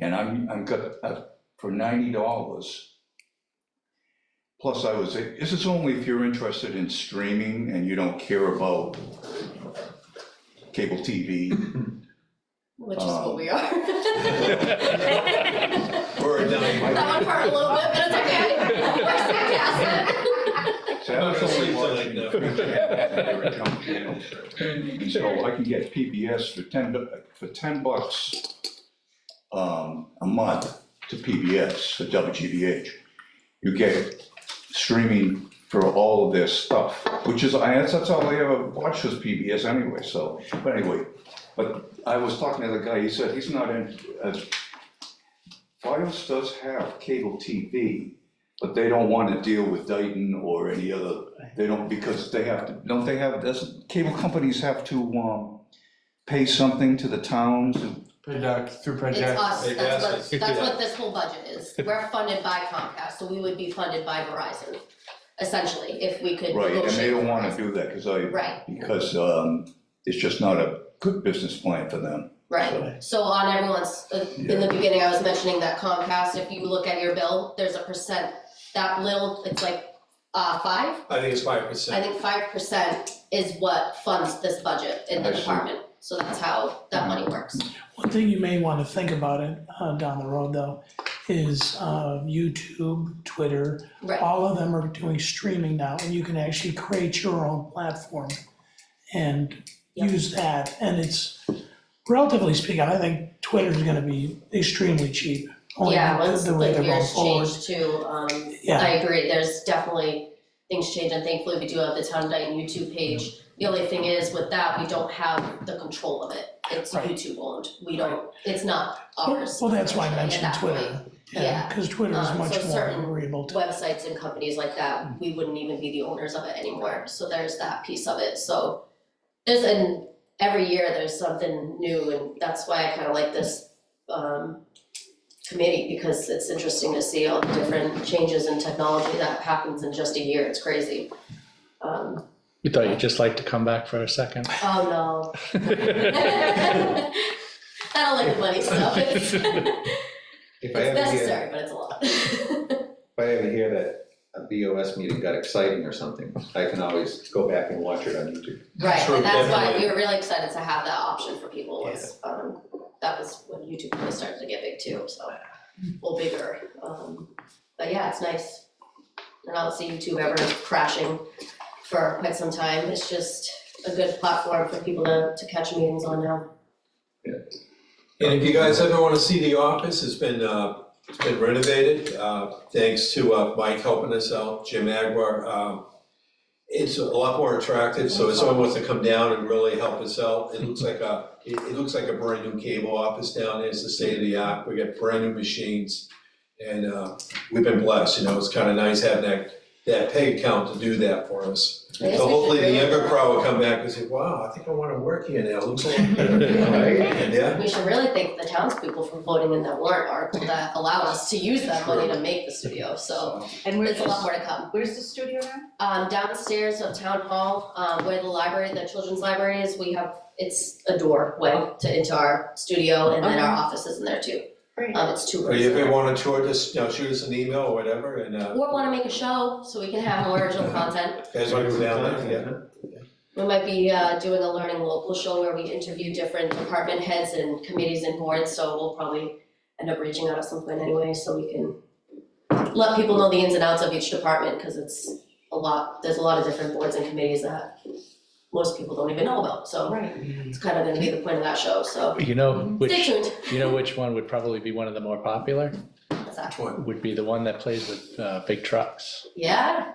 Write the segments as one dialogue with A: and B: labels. A: And I'm, I'm got, uh, for ninety dollars. Plus I was, this is only if you're interested in streaming and you don't care about cable TV
B: Which is what
A: Um,
B: we are.
C: Or a dime.
B: That one part a little bit, but it's okay. We're sarcastic.
A: Saturday
C: Mostly so
A: morning,
C: like
A: the
C: that.
A: future had a junk channel. And so Oh, I can get PBS for ten, bu- for ten bucks um, a month to PBS, for WGBH. You get streaming for all of their stuff, which is, I, that's that's all I ever watched was PBS anyway, so, but anyway. But I was talking to the guy, he said he's not in, uh, Fios does have cable TV, but they don't wanna deal with Dayton or any other, they don't, because they have to, don't they have, does, cable companies have to, um, pay something to the towns?
D: Project, through
B: It's
D: project.
B: us, that's what,
C: Yes.
B: that's what this whole budget is. We're funded by Comcast, so we would be funded by Verizon, essentially, if we could
A: Right,
B: negotiate.
A: and they don't wanna
B: with
A: do that, cause I,
B: Verizon. Right,
A: because, um, it's just not a good business plan for them.
B: right. So on everyone's, uh, in the beginning, I was mentioning that Comcast, if you look at your bill, there's a percent, that little, it's like, uh, five?
C: I think it's five
B: I
C: percent.
B: think five percent is what funds this budget in the
A: I see.
B: department, so that's how that money works.
E: One thing you may want to think about it uh, down the road though is uh, YouTube, Twitter,
B: Right,
E: all of them are doing streaming now, and you can actually create your own platform and
B: Yep.
E: use that. And it's relatively speaking, I think Twitter's going to be extremely cheap. only
B: yeah,
E: the-
B: once
E: the way
B: like
E: they're going
B: years
E: forward.
B: change too, um, I
E: Yeah,
B: agree, there's definitely things change, and thankfully we do have the town of Dayton YouTube page. The only thing is with that, we don't have the control of it, it's
E: Right.
B: YouTube owned, we don't, it's not ours.
E: well, that's why
B: unfortunately,
E: I
B: at
E: mentioned
B: that point.
E: Twitter, yeah,
B: yeah.
E: because Twitter is
B: Um, so
E: much more
B: certain
E: agreeable to.
B: websites and companies like that, we wouldn't even be the owners of it anymore, so there's that piece of it, so. There's an, every year there's something new and that's why I kinda like this um committee, because it's interesting to see all the different changes in technology that happens in just a year, it's crazy. Um,
F: We thought you'd just like to come back for a second.
B: oh no. I don't like the money stuff, it's it's
G: If I ever hear,
B: necessary, but it's a lot.
G: if I ever hear that a BOS meeting got exciting or something, I can always go back and watch it on YouTube.
B: Right,
C: True,
B: and that's why
C: definitely.
B: we were really excited to have that option for people was, um, that was when YouTube really started to get big too, so. Well, bigger, um, but yeah, it's nice. And I don't see YouTube ever crashing for quite some time, it's just a good platform for people to, to catch meetings on now.
C: And if you guys ever wanna see the office, it's been, uh, it's been renovated, uh, thanks to, uh, Mike helping us out, Jim Agwar. Um, it's a lot more attractive, so if someone wants to come down and really help us out, it looks like a, it, it looks like a brand new cable office down there, it's the state of the art, we got brand new machines. And, uh, we've been blessed, you know, it's kinda nice having that, that pay account to do that for us.
B: I guess
C: So
B: we should
C: hopefully the
B: really-
C: younger crowd will come back and say, wow, I think I wanna work here now, looks a lot better.
G: Right?
C: Yeah,
B: We should really thank the townspeople for voting in that warrant article that allowed us to use that money to make the studio, so
C: so,
H: And
B: there's a lot
H: where's,
B: more to come.
H: where's the studio now?
B: Um, downstairs of town hall, um, where the library, the children's library is, we have, it's a doorway to, into our studio and then our office is in there too.
H: Great.
B: Um, it's two
C: or
B: rooms.
C: if
B: in
C: they
B: there.
C: wanna tour this, you know, shoot us an email or whatever, and, uh,
B: Or wanna make a show so we can have more original content.
C: you guys wanna go down there, yeah.
B: We might be, uh, doing a learning local show where we interview different department heads and committees and boards, so we'll probably end up reaching out at some point anyway, so we can let people know the ins and outs of each department, cause it's a lot, there's a lot of different boards and committees that most people don't even know about, so.
H: Right,
B: It's kind of gonna be the point of that show, so
F: You know
B: stay
F: which,
B: tuned.
F: you know which one would probably be one of the more popular?
B: What's that?
C: Tour.
F: Would be the one that plays with uh, big trucks.
B: Yeah?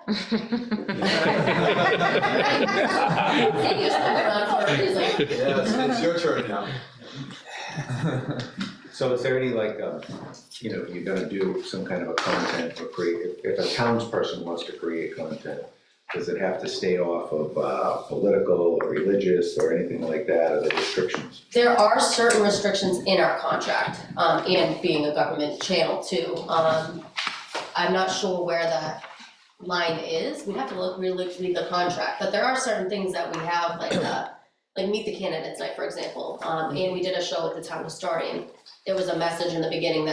B: Hey, you should put it on for a reason.
C: Yes, it's your turn now.
G: So is there any like, um, you know, you're gonna do some kind of a content or create, if- if a townsperson wants to create content, does it have to stay off of uh, political or religious or anything like that, or the restrictions?
B: There are certain restrictions in our contract, um, and being a government channel too. Um, I'm not sure where that line is, we have to look, really read the contract, but there are certain things that we have, like, uh, like Meet the Candidates Night, for example, um, and we did a show with the town historian. there was a message in the beginning that